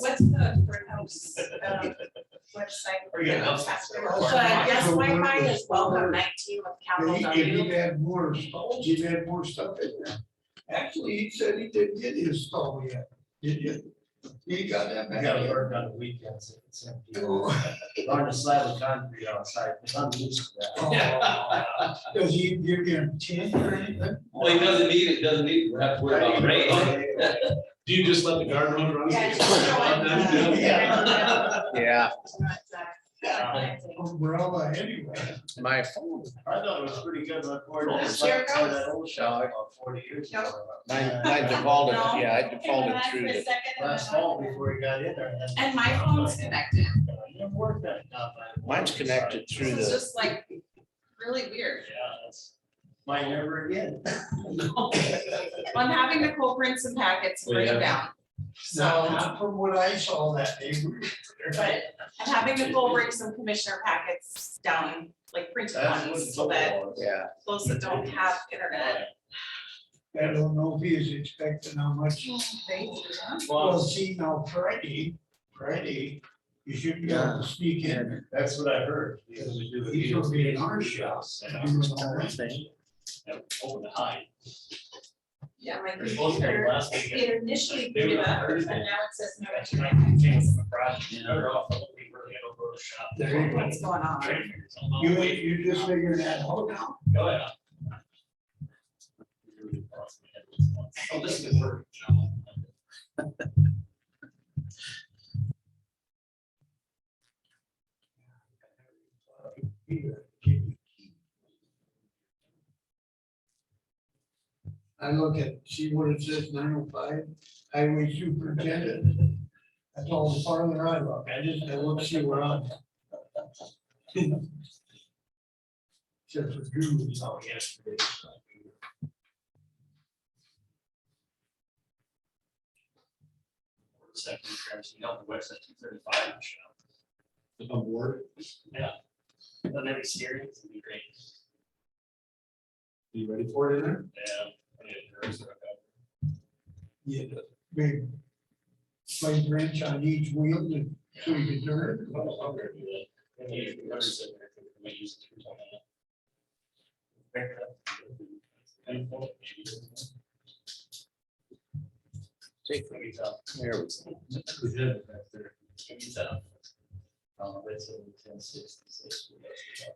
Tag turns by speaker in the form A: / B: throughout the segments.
A: What's the courthouse um, website?
B: Or you got house.
A: But yes, Wi-Fi is welcome nineteen with capital
C: If he- if he'd
A: W.
C: had more stalls, he'd had more stuff in there. Actually, he said he didn't get his stall yet, did you? He got that
D: I gotta
C: back.
D: work on the weekends if it's empty.
C: Oh,
D: Learn to slab of concrete outside, I'm used to that.
C: Does he give you a ten or anything?
B: Well, he doesn't need it, doesn't need, it. we have to worry about rain.
E: Do you just let the guard run around?
A: Yeah, just show it.
B: Yeah.
F: Yeah,
C: Umbrella uh, anyway.
F: my phone,
D: I thought it was pretty good, but Ford
A: Oh,
D: just
A: sure
D: left for
A: goes.
D: that old shop about forty years ago.
F: mine, mine defaulted, yeah, I defaulted through the,
D: Last fall before he got in there. I had-
A: And my phone's connected.
D: I didn't work that enough. I-
F: mine's connected through
A: This is
F: the,
A: just like really
D: Yeah,
A: weird.
D: that's, mine never again.
A: I'm having Nicole print some packets, and bring them down.
C: Not,
A: So,
C: not from what I saw that day. we were there.
A: but I'm having Nicole bring some commissioner packets down, like printed
D: That's what
A: ones,
D: it's
A: so
D: all
A: that
D: about.
F: yeah.
A: those that don't have internet.
C: I don't know if he is expecting how much. Well,
D: Well,
C: see, now Friday, Friday, you should be able to sneak in.
D: that's what I heard. because we do the
C: He's gonna be in our
D: deals.
C: shops.
D: And I'm open to hide.
A: Yeah, my
D: They're supposed to have
A: computer,
D: last weekend.
A: it initially
D: They
A: booted
D: were
A: up, but now
D: Thursday.
A: it says no
D: That's right,
A: internet.
D: change the project, they're off, I'll be really gonna go to shop.
C: There you go.
A: What's going on?
D: Train figures, I'm not
C: You,
D: waiting.
C: you just figure that out now.
D: Go ahead. Oh, this could work.
C: I look at, see what it says, nine oh five, highway superintendent. That's all the farther I look, I just, I look, see where I'm. Except for Drew's.
D: Oh, yesterday. Second, you know, the website two thirty-five,
E: A ward,
D: but every series would be great.
E: you ready for it in there?
D: Yeah. I mean, there is a-
C: Yeah, the big. Play wrench on each wheel and so you can turn. it.
D: Well, I'm gonna do that. And you can notice it, I think, we might use it for something else. Kind of cool, maybe.
F: Take-
D: Maybe it's up.
F: There we go.
D: We did it back there. Maybe it's up. Um, it's in ten sixty-six.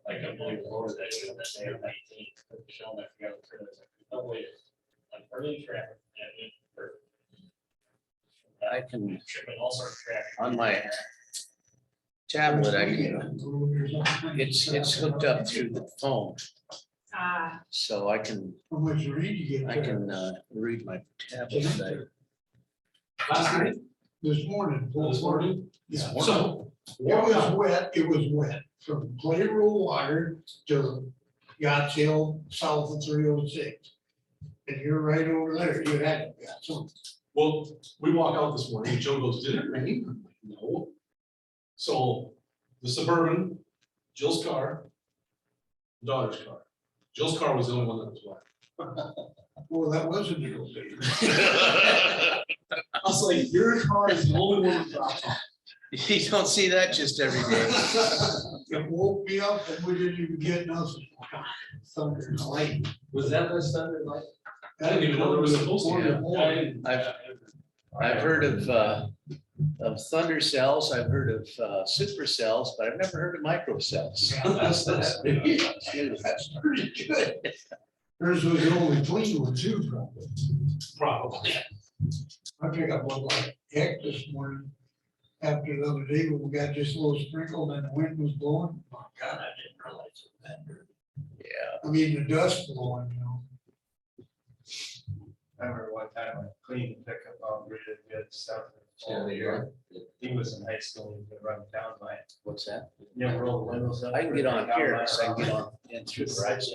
D: I can believe it was that day, that day of nineteen, but Michelle, I forgot to turn it. Oh, wait. I'm early traffic. and it- or-
F: I can,
D: Tripping all sorts of traffic.
F: on my tablet, I can, it's, it's hooked up through the phone,
A: Ah,
F: so I can,
C: How much read you get?
F: I
C: there?
F: can, uh, read my tablet. I-
E: Last night,
C: This morning.
E: this morning,
C: Yeah.
E: so.
C: It was wet, it was wet, from Clay Road Water to Yachts Hill, south of three oh six. And you're right over there, you had it, yeah, so.
E: Well, we walk out this morning, and Joe goes, did it rain? I'm like, No. So the Suburban, Jill's car, daughter's car. Jill's car was the only one that was
C: Well, that wasn't your thing.
E: wet. I was like, your car is the only one that dropped off.
F: You don't see that just every day.
C: It woke me up and we didn't even get nothing. Thunder and lightning.
D: Was that the Sunday night?
E: I didn't even know there was supposed to be.
C: Quarter to one.
F: I've, I've heard of, uh, of thunder cells, I've heard of, uh, supercells, but I've never heard of microcells.
D: Yeah, that's- that's-
C: That's pretty good. Hers was the only clean one too, probably.
E: Probably.
C: I picked up one like heck this morning. After the other day, when we got just a little sprinkle and the wind was blowing. My God, I didn't realize it was that dirty.
F: Yeah,
C: I mean, the dust blowing, you know.
D: I remember one time I cleaned the pickup out, rid of good stuff. all the yard. He was in high school, he could run down my,
F: what's that?
D: never roll the windows up.
F: I can get on here,
D: Down
F: so I
D: my-
F: can get on in
D: Through
F: through
D: the
F: the right,
D: garage.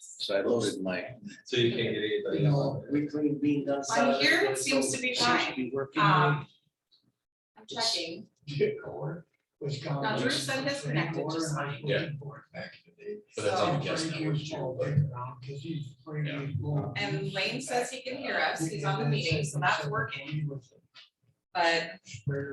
F: so I loaded my.
E: So you can't get anybody.
C: You know,
D: We clean beans outside.
A: On here, it seems to be
F: seems to
A: fine.
F: be working.
A: um, I'm checking.
C: Dick or was gone.
A: Now, Drew said this connected just fine.
E: Yeah. But that's on
A: So,
E: the guest network channel, but-
C: Cause he's afraid
E: Yeah.
C: he's blowing.
A: and Lane says he can hear us. He's on the meeting, so that's working.
C: but